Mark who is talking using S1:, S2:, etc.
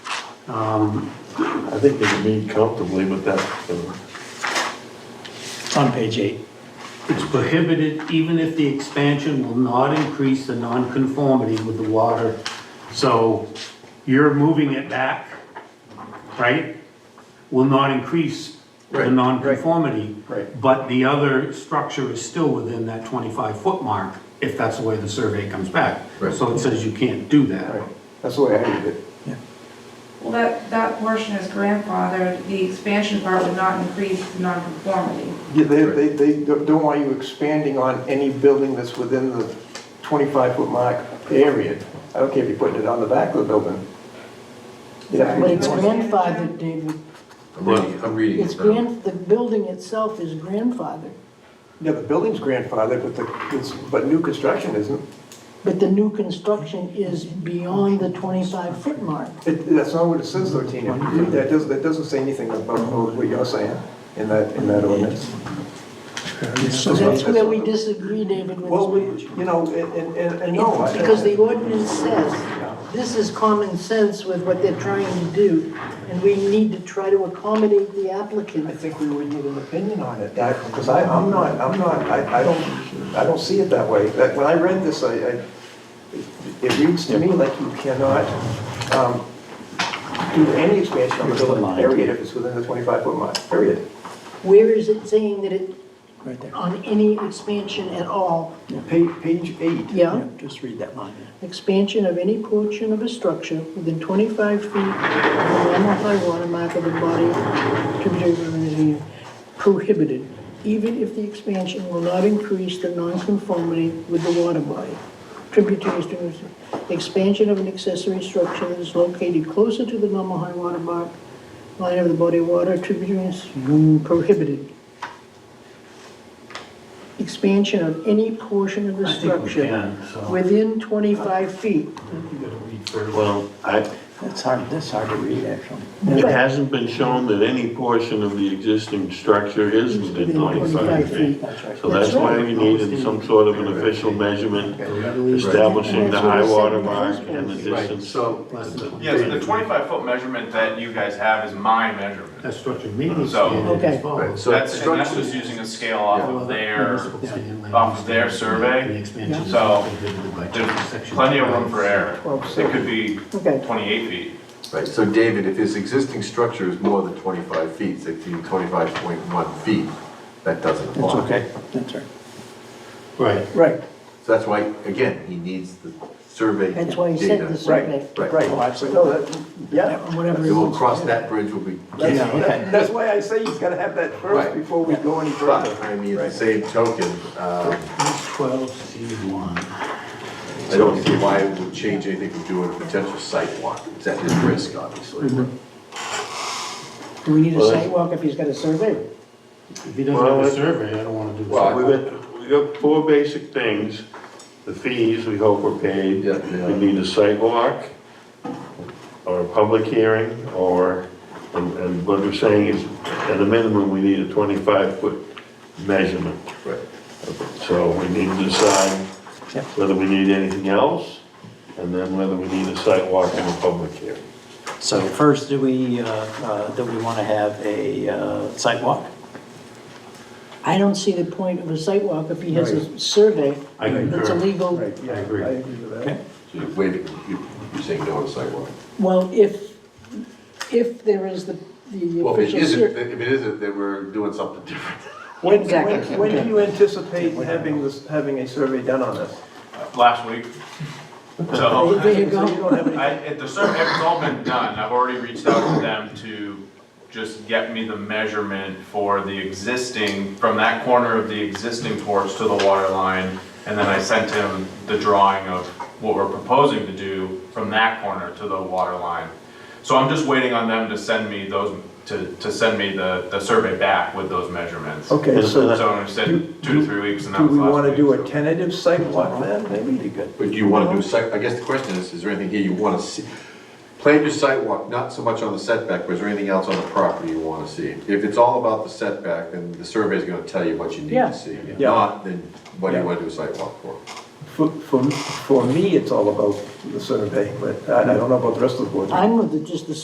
S1: Um,
S2: I think they can meet comfortably with that. uh,
S3: It's on page eight.
S1: It's prohibited even if the expansion will not increase the nonconformity with the water. So you're moving it back, right? Will not increase the
S3: Right,
S1: nonconformity.
S3: right.
S1: But the other structure is still within that 25-foot mark, if that's the way the survey comes back.
S4: Right.
S1: So it says you can't do that.
S5: Right, that's the way I read it.
S6: Well, that, that portion is grandfathered, the expansion part would not increase the nonconformity.
S5: Yeah, they, they, they don't don't want you expanding on any building that's within the twenty-five foot mark, period. I don't care if you're putting it on the back of the building. You'd have to
S6: But
S7: But
S5: make-
S7: it's grandfathered, David.
S4: I'm reading, I'm reading.
S7: It's
S4: it now.
S7: grand, the building itself is grandfathered,
S5: Yeah, the building's grandfathered, but the, it's- but new construction isn't.
S7: but the new construction is beyond the 25-foot mark.
S5: It, that's not what it says though, Tina. That doesn't, that doesn't say anything about what you're saying in that, in that ordinance.
S7: So that's where we disagree, David, with
S5: Well, we,
S7: this.
S5: you know, and, and- and, and no. I-
S7: Because the ordinance says, this is common sense with what they're trying to do, and we need to try to accommodate the
S5: I
S7: applicant.
S5: think we would need an opinion on it, because I, I'm not, I'm not, I, I don't, I don't see it that way. That- When I read this, I, I, it reads to me like you cannot, um, do any expansion on the
S3: Here's the
S5: building,
S3: line.
S5: period, if it's within the twenty-five foot line, period.
S7: Where is it saying that it,
S3: Right there.
S7: on any expansion at all?
S5: Pa- Page eight.
S7: Yeah?
S3: Just read that line.
S7: expansion of any portion of a structure within 25 feet of the land by water mark of the body tributary river in the Union prohibited, even if the expansion will not increase the nonconformity with the water body. Tributaries to, expansion of an accessory structure that is located closer to the normal high water mark, line of the body of water, tributaries mm, prohibited. Expansion of any portion of the
S1: I think we
S7: structure
S1: can, so.
S7: within 25 feet.
S2: Well, I,
S3: That's hard, that's hard to read, actually.
S2: it hasn't been shown that any portion of the existing structure is within
S7: Within 25
S2: 25 feet.
S7: feet.
S2: So that's
S7: That's right.
S2: why we needed some sort of an official measurement establishing the
S7: That's what
S2: high
S7: it said
S2: water
S7: in the
S2: mark
S7: first
S2: and the
S7: place.
S1: Right,
S2: distance.
S1: so, less than-
S8: Yes, the twenty-five foot measurement that you guys have is my measurement.
S1: that's what your meeting
S8: So-
S1: standard
S7: Okay.
S1: is for.
S4: So
S8: That's, and that's
S4: structure-
S8: just using a scale off of their,
S1: Municipal standard.
S8: off of their
S1: The
S8: survey.
S1: expansion is
S8: So,
S1: prohibited by
S8: There's
S1: section
S8: plenty of
S1: 12.
S8: room for error. It could be
S7: Okay.
S8: twenty-eight feet.
S4: Right, so David, if his existing structure is more than 25 feet, 16, 25.1 feet, that doesn't
S3: That's
S4: apply.
S3: okay, that's right.
S1: Right,
S7: Right,
S4: So that's why, again, he needs the survey
S7: that's why he said the
S4: data.
S7: survey.
S4: Right.
S5: Right,
S3: Oh, absolutely.
S5: no, that, yeah.
S7: Whatever.
S4: So we'll cross that bridge when we
S5: That's-
S4: get
S3: Yeah, okay.
S5: That's why I say he's gotta have that first
S4: Right.
S5: before we go any further.
S4: But, I mean, the same token, um,
S1: twelve C one.
S4: I don't see why it would change anything from doing a potential site walk. It's at his risk, obviously.
S3: Mm-hmm.
S7: Do we need a
S2: Well,
S7: sidewalk if he's got a survey?
S1: If he doesn't have
S2: Well,
S1: a
S2: it-
S1: survey, I don't wanna do
S4: Well,
S1: that.
S4: I-
S2: We got, we got four basic things. The fees, we hope are paid.
S4: Yeah, yeah.
S2: We need a sidewalk or a public hearing or, and, and what we're saying is, at a minimum, we need a 25-foot measurement.
S4: Right.
S2: So we need to decide
S3: Yep.
S2: whether we need anything else and then whether we need a sidewalk and a public hearing.
S3: So first, do we, uh, uh, do we want to have a uh, site walk?
S7: I don't see the point of a sidewalk if he has a survey
S2: I concur.
S7: that's illegal.
S5: Right, yeah,
S2: I agree.
S5: I agree with that.
S3: Okay.
S4: So you're waiting, you- you're saying no on sidewalk.
S7: Well, if, if there is the, the
S4: Well, if it
S7: official
S4: isn't,
S7: survey.
S4: if it isn't, then we're doing something different.
S5: When,
S7: Exactly.
S5: when, when do you anticipate having this, having a survey done on this?
S8: Uh, Last week. So.
S7: There you
S5: So
S7: go.
S5: don't have any-
S8: I, at the survey, it's all been done, I've already reached out to them to just get me the measurement for the existing, from that corner of the existing porch to the water line, and then I sent him the drawing of what we're proposing to do from that corner to the water line. So I'm just waiting on them to send me those, to, to send me the, the survey back with those measurements.
S5: Okay, so
S8: So I said
S5: Do-
S8: two to three weeks, and that
S5: do
S8: was
S5: we
S8: last
S5: want to
S8: week,
S5: do a
S8: so-
S5: tentative site walk then, maybe? Good.
S4: But do you want to do site, I guess the question is, is there anything here you want to see? Plan your site walk, not so much on the setback, but is there anything else on the property you want to see? If it's all about the setback, then the survey's going to tell you what you need
S7: Yeah.
S4: to see. If
S5: Yeah.
S4: not, then what do you
S5: Yeah.
S4: want to do a site walk for?
S5: For, for, for me, it's all about the survey, but I I don't know about the rest of the board.
S7: I'm with the- just the